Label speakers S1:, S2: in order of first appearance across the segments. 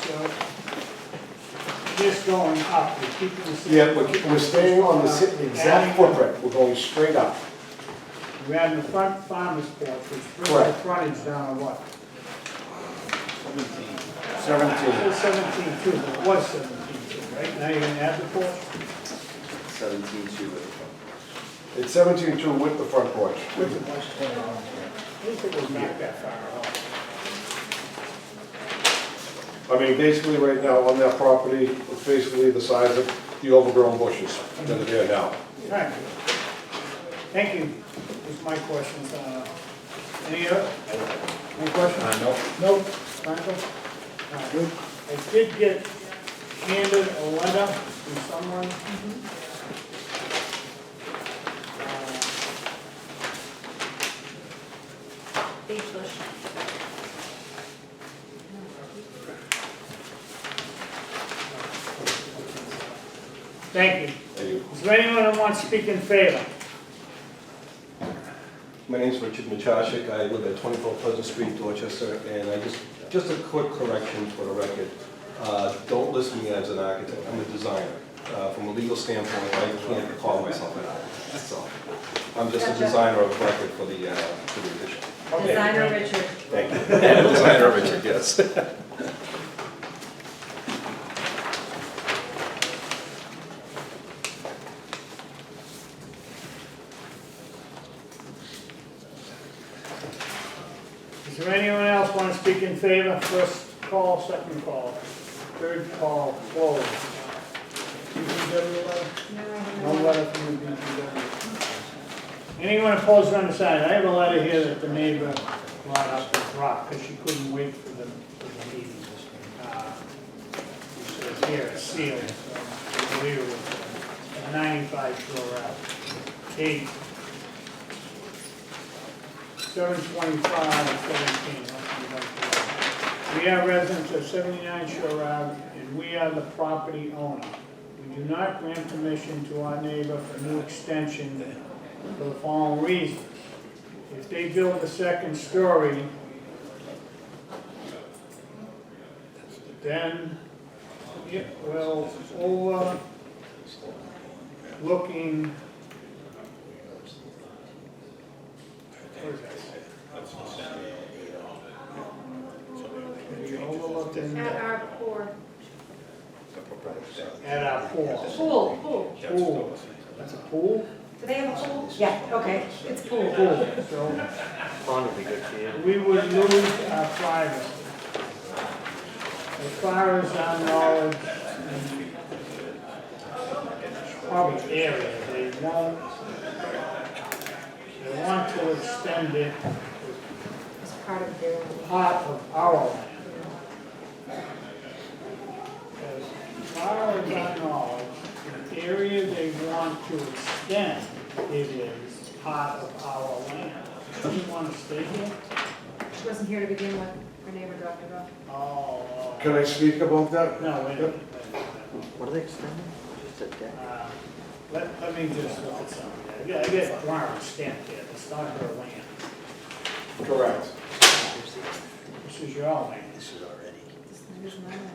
S1: so just going up, we keep this.
S2: Yeah, we're, we're staying on the si- the exact footprint, we're going straight up.
S1: We're adding the front farmer's porch, which brings the
S2: Correct.
S1: frontage down to what? It
S2: Seventeen.
S1: was seventeen two, it was seventeen two, right? Now you're gonna add the porch
S3: Seventeen two with the front
S2: It's seventeen two with the front porch.
S1: with the porch. I think it was not that far off.
S2: I mean, basically, right now, on that property, it's basically the size of the overgrown bushes that are there now.
S1: Right. Thank you. That's my questions. Uh, Any other? Any questions?
S2: no.
S1: Nope. Michael? All right. I did get handed a letter from someone. Uh,
S4: Speechless.
S1: Thank you.
S2: Thank you.
S1: Is there anyone that wants to speak in favor?
S5: My name's Richard Machashik, I live at 24 Pleasant Street, Dorchester, and I just, just a quick correction for the record. Uh, Don't list me as an architect, I'm a designer. Uh, From a legal standpoint, I can't call myself an architect, so I'm just a designer of record for the, uh, for the addition.
S1: Okay.
S4: Designer Richard.
S5: Thank you. Designer of record, yes.
S1: Is there anyone else want to speak in favor? First call, second call, third call, closed. DPW letter? No letter from the DPW. Anyone opposed or undecided? I have a letter here that the neighbor brought up and dropped because she couldn't wait for the, for the meeting. Uh, She says here, it's sealed, so I believe it was uh, 95 Shore Ave. Kate, seven twenty-five and seventeen, that's the right way. We are residents of seventy-nine Shore Ave, and we are the property owner. We do not grant permission to our neighbor for new extension for the following reason. If they build a second story, then it will uh, overlooking, what is that? We overlooked in
S4: At our poor
S1: at our pool.
S4: pool, pool.
S1: Pool, that's a pool?
S4: Do they have a pool? Yeah, okay, it's pool.
S1: Pool, so
S3: Pond would be good for you.
S1: we would lose our privacy. As far as our knowledge, in public area, they won't, they want to extend it
S4: It's part of their.
S1: part of our land. As far as I know, the area they want to extend, it is part of our land. Do you want to stay here?
S4: She wasn't here to begin with, her neighbor dropped her off.
S1: Oh,
S2: Can I speak about that?
S1: no, wait a minute.
S3: What are they extending? Just a deck?
S1: Uh, Let, let me just look at something. I got, I got Warren stamped here, it's not her land.
S2: Correct.
S1: This is your own land.
S4: This is my land.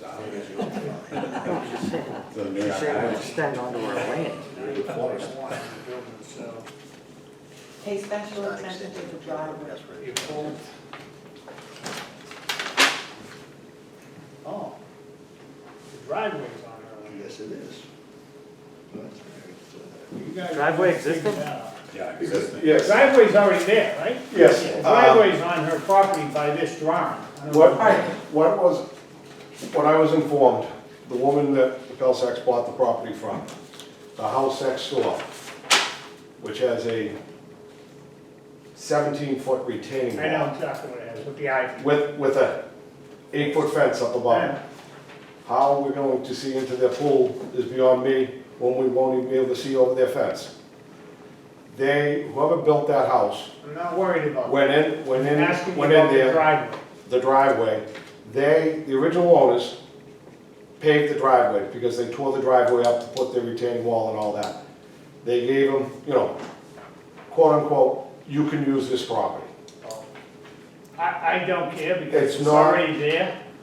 S3: No, I'm just saying, they're saying they extend onto our land.
S1: Warren, the building, So,
S6: Pay special attention to the driveway.
S1: you pull. Oh, the driveway's on her land.
S7: Yes, it is.
S1: You guys
S3: Driveway
S1: figure
S3: existed?
S1: that out.
S7: Yeah,
S1: The
S2: Yes,
S1: Driveway's already there, right?
S2: yes.
S1: The
S2: um,
S1: Driveway's on her property by this drawing. I don't know.
S2: What, what was, what I was informed, the woman that the Pelsax bought the property from, the house next door, which has a seventeen-foot retaining
S1: I know
S2: wall
S1: exactly what it is, with the ivy.
S2: with, with a eight-foot fence up above it. How we're going to see into their pool is beyond me, when we won't even be able to see over their fence. They, whoever built that house,
S1: I'm not worried about it.
S2: went in, went
S1: I'm
S2: in,
S1: asking you
S2: went in
S1: about the
S2: there
S1: driveway.
S2: the driveway, they, the original owners paved the driveway because they tore the driveway up to put the retaining wall and all that. They gave them, you know, quote unquote, you can use this property.
S1: I, I don't care because
S2: It's
S1: it's
S2: not-
S1: already there.